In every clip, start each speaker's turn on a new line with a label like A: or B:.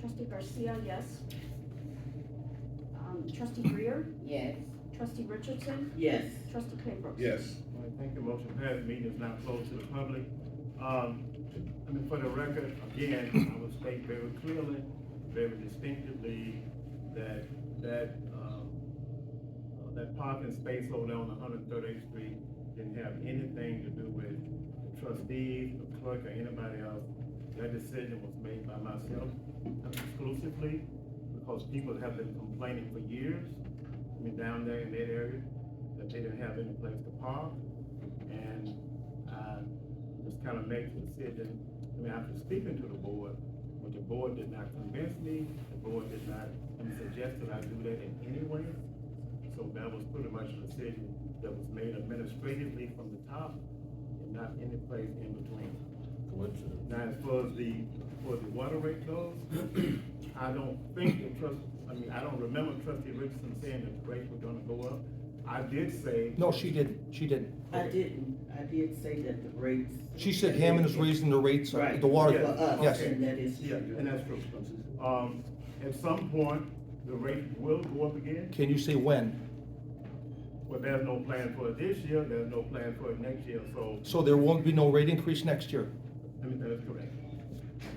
A: trustee Garcia, yes. Um, trustee Greer,
B: Yes.
A: trustee Richardson,
B: Yes.
A: trustee Claybrook.
C: Yes.
D: All right, Thank you, motion passed, meeting is now closed to the public. Um, I mean, for the record, again, I would state very clearly, very distinctively, that, that, um, uh, that parking space over there on one hundred thirty-eighth Street didn't have anything to do with the trustees, the clerk, or anybody else. That decision was made by myself exclusively, because people have been complaining for years, I mean, down there in that area, that they didn't have any place to park. And I just kind of made the decision, I mean, after speaking to the board, but the board did not convince me, the board did not suggest that I do that in any way. So that was pretty much a decision that was made administratively from the top and not any place in between. Now, as far as the, for the water rate goes, I don't think the trust, I mean, I don't remember trustee Richardson saying that the rates were gonna go up. I did say.
E: No, she didn't, she didn't.
B: I didn't, I did say that the rates.
E: She said Hammond is raising the rates, uh, the water,
D: Right,
B: For us,
E: yes.
B: and that is.
D: Yeah, and that's true. Um, at some point, the rate will go up again,
E: Can you say when?
D: but there's no plan for it this year, there's no plan for it next year, so,
E: So there won't be no rate increase next year?
D: I mean, that is correct.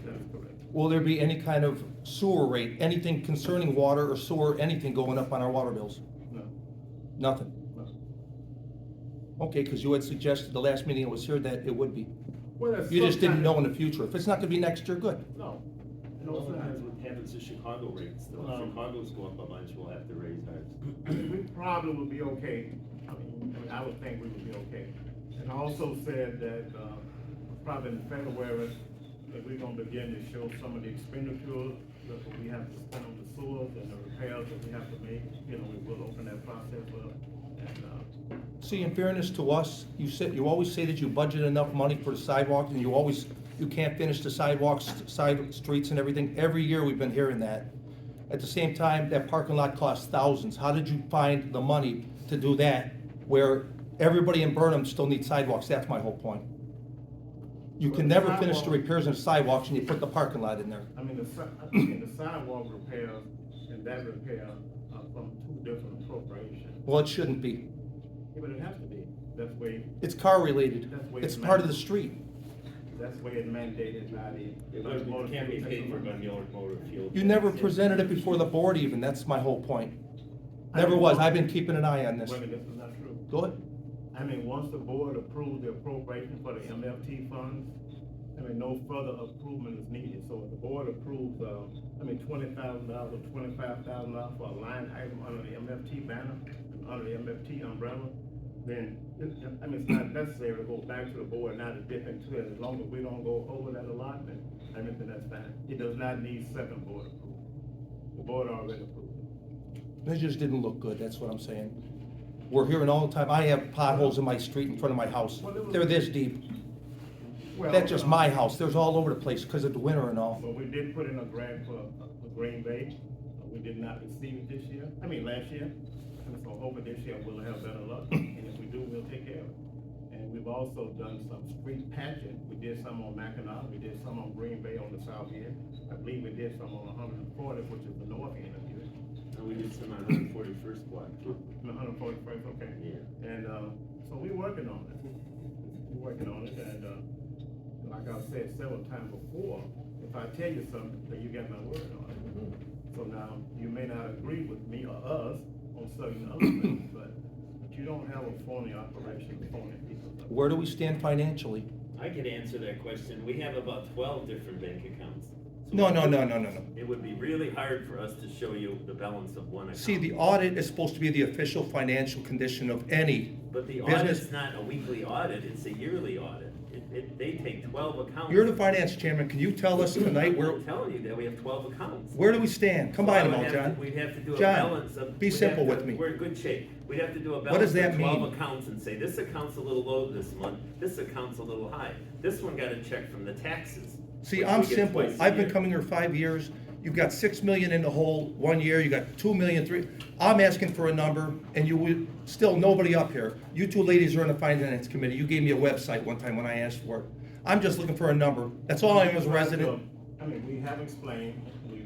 D: That is correct.
E: Will there be any kind of sewer rate, anything concerning water or sewer, anything going up on our water bills?
D: No,
E: Nothing?
D: no.
E: Okay, because you had suggested the last meeting I was here that it would be.
D: Well, that's
E: You just didn't
D: sometime-
E: know in the future. If it's not gonna be next year, good.
D: No. No, it's
F: Another
D: not.
F: times what happens to Chicago rates, though,
D: Um,
F: if Chicago's go up a bunch, we'll have to raise ours.
D: I mean, we probably would be okay. I mean, I would think we would be okay. And I also said that, uh, probably in February, that we're gonna begin to show some of the expenditures that we have to spend on the sewers and the repairs that we have to make. You know, we will open that process up and, uh,
E: See, in fairness to us, you said, you always say that you budget enough money for the sidewalks, and you always, you can't finish the sidewalks, side streets and everything. Every year, we've been hearing that. At the same time, that parking lot costs thousands. How did you find the money to do that, where everybody in Burnham still needs sidewalks? That's my whole point. You can never finish the repairs in sidewalks, and you put the parking lot in there.
D: I mean, the si- I mean, the sidewalk repairs and that repair are from two different appropriations.
E: Well, it shouldn't be.
D: But it has to be. That's way,
E: It's car-related.
D: That's way
E: It's
D: too much.
E: part of the street.
D: that's way it's mandated by the.
F: It wouldn't- can't be paid for by Miller Motor Fuel.
E: You never presented it before the board even, that's my whole point.
D: I
E: Never
D: don't
E: was,
D: know.
E: I've been keeping an eye on this.
D: Wait a minute, this is not true.
E: Go ahead.
D: I mean, once the board approved the appropriation for the MFT funds, I mean, no further improvement is needed. So if the board approves, uh, I mean, twenty thousand dollars or twenty-five thousand dollars for a line item under the MFT banner, under the MFT umbrella, then, it- I mean, it's not necessary to go back to the board now to dip into it. As long as we don't go over that allotment, I mean, then that's fine. It does not need second board approval. The board already approved it.
E: It just didn't look good, that's what I'm saying. We're hearing all the time, I have potholes in my street in front of my house. They're this deep. That's
D: uh,
E: just my house, there's all over the place because of the winter and all.
D: So we did put in a grant for, for Green Bay, Uh, we did not receive it this year, I mean, last year. And so hoping this year we'll have better luck, and if we do, we'll take care of it. And we've also done some street patching, we did some on Mackinac, we did some on Green Bay on the south end. I believe we did some on one hundred and forty, which is the north end of it,
F: And we did some on Hundred Forty-first block, too.
D: one hundred and forty first, okay.
F: yeah.
D: And, uh, so we are working on it. We're working on it, and, uh, like I've said several times before, if I tell you something, then you got my word on it. So now, you may not agree with me or us on certain other things, but, but you don't have a phony operation, phony people.
E: Where do we stand financially?
F: I could answer that question, we have about twelve different bank accounts. So
E: No, no, no, no, no, no.
F: It would be really hard for us to show you the balance of one account.
E: See, the audit is supposed to be the official financial condition of any.
F: But the
E: business-
F: audit's not a weekly audit, it's a yearly audit. It, it, they take twelve accounts.
E: You're the finance chairman, can you tell us tonight where,
F: I'm telling you that we have twelve accounts.
E: where do we stand? Come by
F: So I
E: them
F: would
E: all,
F: have to-
E: John.
F: We'd have to do a
E: John,
F: balance of.
E: be
F: we'd have
E: simple
F: to-
E: with me.
F: We're in good shape. We'd have to do a
E: does
F: balance
E: that
F: of twelve
E: mean?
F: accounts and say, this account's a little low this month, this account's a little high. This one got a check from the taxes.
E: See,
F: which
E: I'm
F: we get
E: simple.
F: twice a
E: I've been
F: year.
E: coming here five years. You've got six million in the hole one year, you got two million, three. I'm asking for a number and you would, still nobody up here. You two ladies are on the finance committee. You gave me a website one time when I asked for it. I'm just looking for a number. That's all I am as a resident.
D: I mean, we have explained,